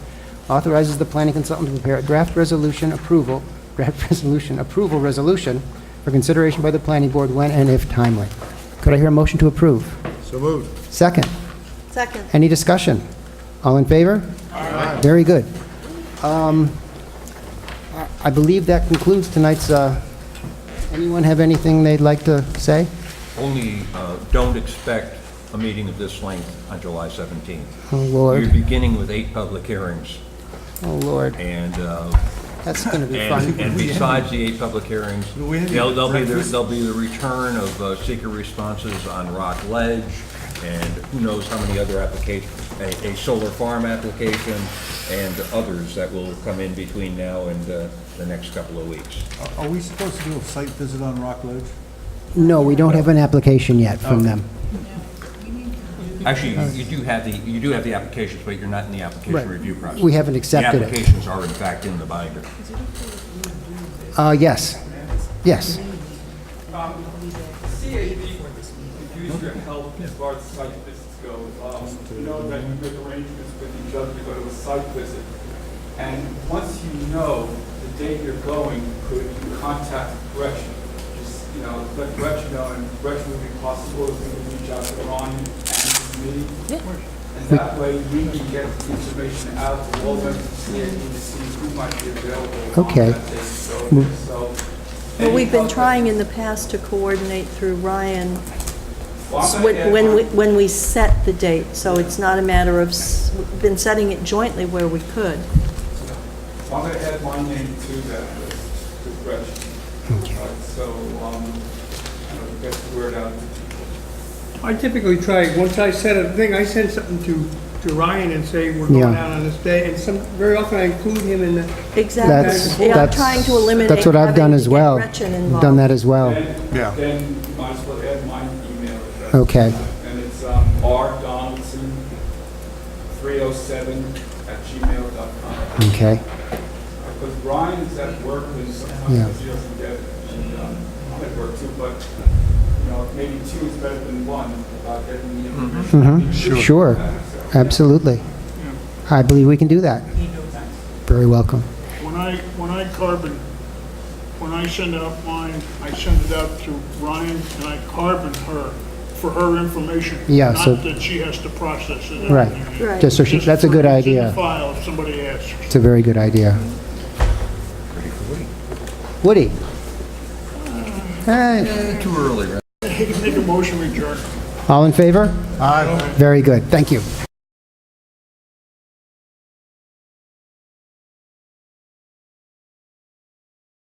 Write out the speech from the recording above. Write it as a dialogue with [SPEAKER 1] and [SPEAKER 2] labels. [SPEAKER 1] authorizes the planning consultant to prepare a draft resolution approval, draft resolution, approval resolution for consideration by the planning board when and if timely. Could I hear a motion to approve?
[SPEAKER 2] So moved.
[SPEAKER 1] Second,
[SPEAKER 3] Second.
[SPEAKER 1] any discussion? All in favor? Aye. Very good. Um, I I believe that concludes tonight's, uh, anyone have anything they'd like to say?
[SPEAKER 4] Only, uh, don't expect a meeting of this length on July 17th.
[SPEAKER 1] Oh, Lord.
[SPEAKER 4] You're beginning with eight public hearings,
[SPEAKER 1] Oh, Lord,
[SPEAKER 4] and, uh,
[SPEAKER 1] that's going to be
[SPEAKER 4] and
[SPEAKER 1] fun.
[SPEAKER 4] and besides the eight public hearings, there'll there'll be, the- there'll be the return of uh, seeker responses on Rock Ledge, and who knows how many other applications, a a solar farm application, and others that will come in between now and uh, the next couple of weeks.
[SPEAKER 2] Are- Are we supposed to do a site visit on Rock Ledge?
[SPEAKER 1] No, we don't have an application yet from them.
[SPEAKER 4] Actually, you- you do have the, you do have the applications, but you're not in the
[SPEAKER 1] Right.
[SPEAKER 4] application review process.
[SPEAKER 1] We haven't accepted it.
[SPEAKER 4] The applications are in fact in the binder.
[SPEAKER 1] Uh, yes, yes.
[SPEAKER 5] Um, CAB used your help as far as site visits go. Um, You know that you make arrangements with each other to go to a site visit. And once you know the date you're going, could you contact Gretchen? Just, you know, let Gretchen know, and Gretchen would be possible if we could reach out to Ron and me. And that way, we can get the information out to all members of CAB to see who might be available on
[SPEAKER 1] Okay.
[SPEAKER 5] that day. So, so.
[SPEAKER 3] Well, we've
[SPEAKER 5] any
[SPEAKER 3] been
[SPEAKER 5] help that-
[SPEAKER 3] trying in the past to coordinate through Ryan
[SPEAKER 5] Well, I'm gonna
[SPEAKER 3] when
[SPEAKER 5] add
[SPEAKER 3] when
[SPEAKER 5] on-
[SPEAKER 3] we, when we set the date, so it's not a matter of, s- we've been setting it jointly where we could.
[SPEAKER 5] So I'm going to add my name to that list, to Gretchen. Uh, So, um, I don't know, get the word out to people.
[SPEAKER 6] I typically try, once I set a thing, I send something to, to Ryan and say, we're going
[SPEAKER 1] Yeah.
[SPEAKER 6] out on this day, and some, very often I include him in the,
[SPEAKER 1] That's,
[SPEAKER 3] Exactly. Yeah, I'm
[SPEAKER 1] that's.
[SPEAKER 3] trying to eliminate
[SPEAKER 1] That's what I've
[SPEAKER 3] having
[SPEAKER 1] done
[SPEAKER 3] to
[SPEAKER 1] as
[SPEAKER 3] get
[SPEAKER 1] well.
[SPEAKER 3] Gretchen
[SPEAKER 1] I've Done that
[SPEAKER 3] involved.
[SPEAKER 1] as well.
[SPEAKER 5] Then-
[SPEAKER 2] Yeah.
[SPEAKER 5] Then you might as well add my email address.
[SPEAKER 1] Okay.
[SPEAKER 5] And it's um, rdonaldson307@gmail.com.
[SPEAKER 1] Okay,
[SPEAKER 5] Because Brian is at work, and
[SPEAKER 1] Yeah.
[SPEAKER 5] sometimes he doesn't get, it. And, um, I'm at work too, but, you know, maybe two is better than one about getting the
[SPEAKER 1] Mm-hmm.
[SPEAKER 5] information.
[SPEAKER 1] sure, absolutely. I believe we can do that. Very welcome.
[SPEAKER 7] When I, when I carbon, when I send out mine, I send it out to Ryan and I carbon her for her information.
[SPEAKER 1] Yeah, so-
[SPEAKER 7] Not that she has to process it.
[SPEAKER 1] Right.
[SPEAKER 3] Right.
[SPEAKER 1] Just so she, that's a good idea.
[SPEAKER 7] Just for- it's in the file if somebody asks.
[SPEAKER 1] It's a very good idea. Woody? Hey,
[SPEAKER 4] Too early, right?
[SPEAKER 7] Make a motion, we adjourn.
[SPEAKER 1] all in favor? Very good, thank you.